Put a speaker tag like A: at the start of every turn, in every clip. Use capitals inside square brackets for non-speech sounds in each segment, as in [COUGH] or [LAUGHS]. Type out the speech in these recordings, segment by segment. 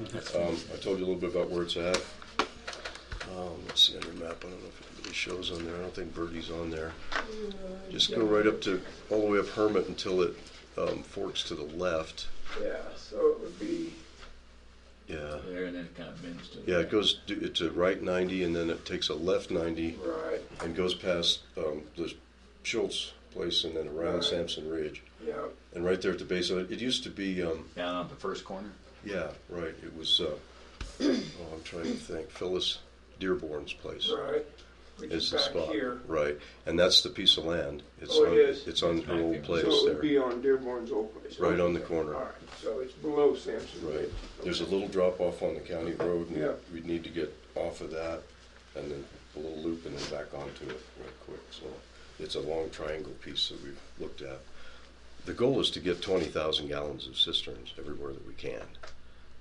A: Um, I told you a little bit about where it's at. Um, let's see on your map. I don't know if anybody shows on there. I don't think Birdie's on there. Just go right up to all the way up Hermit until it um, forks to the left.
B: Yeah, so it would be,
A: Yeah.
C: There and then it kind of bends to. the
A: Yeah,
C: right.
A: it goes d- it's a right 90 and then it takes a left 90
B: right,
A: and goes past um, the Schultz place and then around
B: Right.
A: Sampson Ridge.
B: yeah,
A: And right there at the base of it, it used to be, um,
C: Down on the first corner.
A: yeah, right. It was, uh, [CLEARS THROAT] oh, I'm trying to think, Phyllis Dearborn's place.
B: right. Which
A: Is
B: is
A: the
B: back
A: spot
B: here.
A: right? And that's the piece of land. It's
B: Oh, it
A: on,
B: is.
A: It's on
C: It's
A: her
C: back
A: old
C: there.
A: place
B: So it
A: there,
B: would be on Dearborn's old place.
A: right on the corner.
B: All right, so it's below Sampson.
A: Right. There's a little drop off on the county road, and
B: Yeah.
A: we'd need to get off of that, and then a little loop, and then back onto it real quick. So it's a long triangle piece that we've looked at. The goal is to get 20,000 gallons of cisterns everywhere that we can,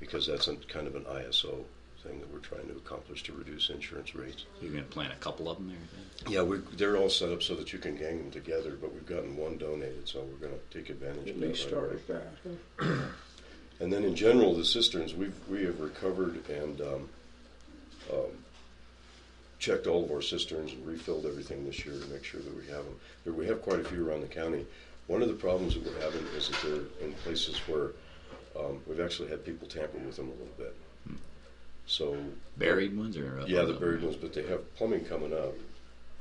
A: because that's an, kind of an ISO thing that we're trying to accomplish to reduce insurance rates.
C: You're gonna plant a couple of them there. Then?
A: Yeah, we, they're all set up so that you can gang them together, but we've gotten one donated, so we're going to take advantage of
B: At
A: that.
B: least
A: right
B: start
A: away.
B: at that.
A: [CLEARS THROAT] And then in general, the cisterns, we've, we have recovered and um, um, checked all of our cisterns and refilled everything this year to make sure that we have them. There, we have quite a few around the county. One of the problems that we're having is that they're in places where um, we've actually had people tamper with them a little bit. So,
C: Buried ones or up
A: yeah,
C: on
A: the
C: up?
A: buried ones, but they have plumbing coming up,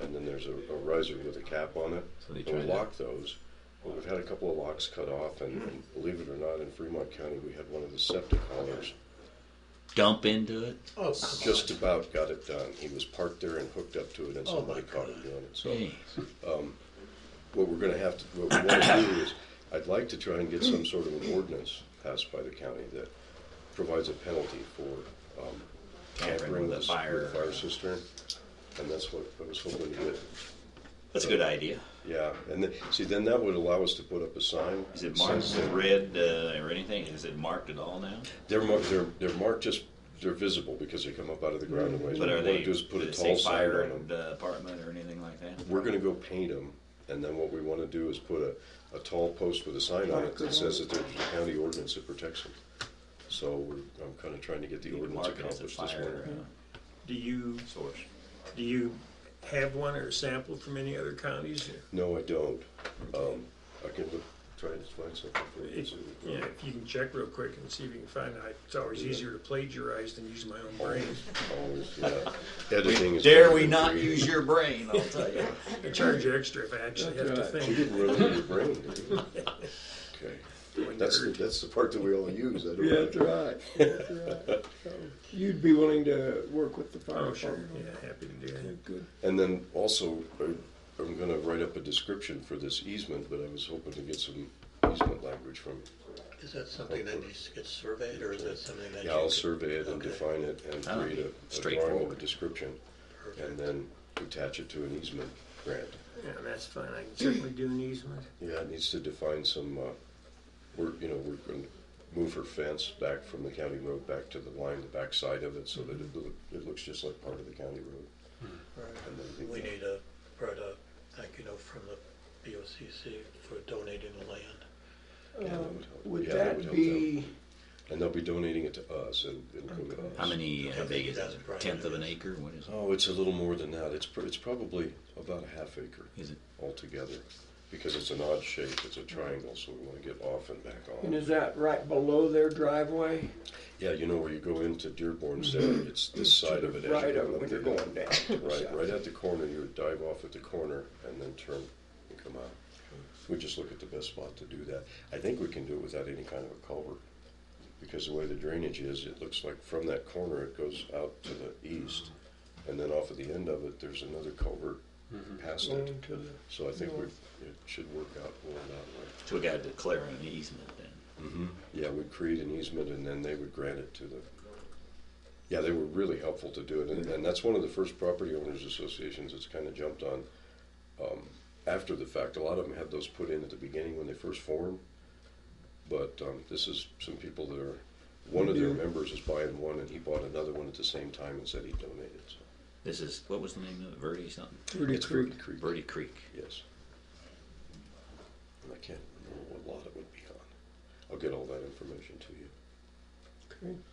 A: and then there's a, a riser with a cap on it.
C: So they
A: And we
C: tried to-
A: lock those. Well, we've had a couple of locks cut off, and, and believe it or not, in Fremont County, we had one of the septic haulers
C: Dump into it.
D: Oh, come
A: just about got it done. He was parked there and hooked up to it, and
D: Oh,
A: somebody
D: my
A: caught him doing it. So [LAUGHS]
C: Hey,
A: what we're going to have to, what we want to do is, I'd like to try and get some sort of an ordinance passed by the county that provides a penalty for um, tampering with a
C: fire.
A: fire cistern, and that's what I was hoping to get.
C: That's a good idea.
A: Yeah, and then, see, then that would allow us to put up a sign.
C: Is it
A: that says
C: marked with
A: that-
C: red uh, or anything? Is it marked at all now?
A: They're marked, they're, they're marked just, they're visible because they come up out of the ground. and ways.
C: But are
A: What we
C: they?
A: wanna do is put a
C: does it say
A: tall sign
C: fire
A: on them.
C: the apartment or anything like that?
A: We're gonna go paint them, and then what we wanna do is put a, a tall post with a sign on it that says that there's a county ordinance that protects them. So we're, I'm kinda trying to get the
C: You can
A: ordinance
C: mark it as a
A: accomplished this
C: fire
A: winter.
C: uh,
D: on. Do you,
C: source.
D: do you have one or sample from any other counties?
A: No, I don't. Um, I can look, try to find something for you.
D: If,
A: so-
D: yeah, if you can check real quick and see if you can find it, it's always easier to plagiarize than use my own brain.
A: Always, yeah.
C: [LAUGHS]
A: Editing is.
C: Dare
A: better
C: we
A: than
C: not
A: creating.
C: use your brain? I'll tell you.
A: [LAUGHS]
D: I charge you extra if I actually have to
A: You
D: think.
A: didn't run out of your brain, did you? Okay. That's, the- that's the part that we all use, I don't.
B: Yeah, that's right, that's
A: [LAUGHS]
B: right. So You'd be willing to work with the fire
D: Oh, sure,
B: department? on
D: yeah, happy to do
B: that?
D: that.
B: Good.
A: And then also, I- I'm gonna write up a description for this easement, but I was hoping to get some easement language from,
E: Is that something that needs to get surveyed, or is that something that you?
A: yeah, I'll
E: could-
A: survey it and
E: Okay.
A: define it and
C: Ah,
A: create a- a drawing of a
C: straightforward.
A: description. And then attach it to an easement grant.
D: Yeah, that's fine, I can certainly do an easement.
A: Yeah, it needs to define some, uh, we're, you know, we're gonna move her fence back from the county road back to the line, the back side of it, so that it, loo- it looks just like part of the county road. And then I think
E: We
A: that-
E: need a, right, a, thank you note from the BOCC for donating the land.
A: yeah,
B: Um,
A: that would help.
B: Would
A: Yeah, would
B: that
A: help them.
B: be,
A: And they'll be donating it to us, it'll, it'll go to us.
C: How many? How big is
E: That's
C: it?
E: probably
C: Tenth of an
E: it.
C: acre? What is it?
A: Oh, it's a little more than that. It's, pr- it's probably about a half acre
C: Is it?
A: altogether because it's an odd shape. It's a triangle, so we want to get off and back
B: and
A: on.
B: is that right below their driveway?
A: Yeah, you know where you go into
B: [CLEARS THROAT]
A: Dearborn's there, it's this
B: To
A: side
B: the
A: of it. as you
B: Right
A: go
B: of it
A: up
B: when you're
A: the hill.
B: going down. to the
A: Right,
B: south.
A: right at the corner. You would dive off at the corner and then turn and come out. We just look at the best spot to do that. I think we can do it without any kind of a culvert because the way the drainage is, it looks like from that corner it goes out to the east. And then off of the end of it, there's another culvert past it.
B: Going to the-
A: So I think we,
B: North.
A: it should work out well that
C: So we got to declare an easement then.
A: way. Yeah, we'd create an easement and then they would grant it to the, yeah, they were really helpful to do it. And, and that's one of the first property owners associations that's kind of jumped on, um, after the fact. A lot of them had those put in at the beginning when they first formed. But, um, this is some people that are, one of their members is buying one and he bought another one at the same time and said he donated, so.
C: This is what was the name of it? Verde something.
B: Pretty
A: It's
B: creek.
A: Verde Creek.
C: Verde Creek.
A: Yes. And I can't remember what lot it would be on. I'll get all that information to you.
B: Okay.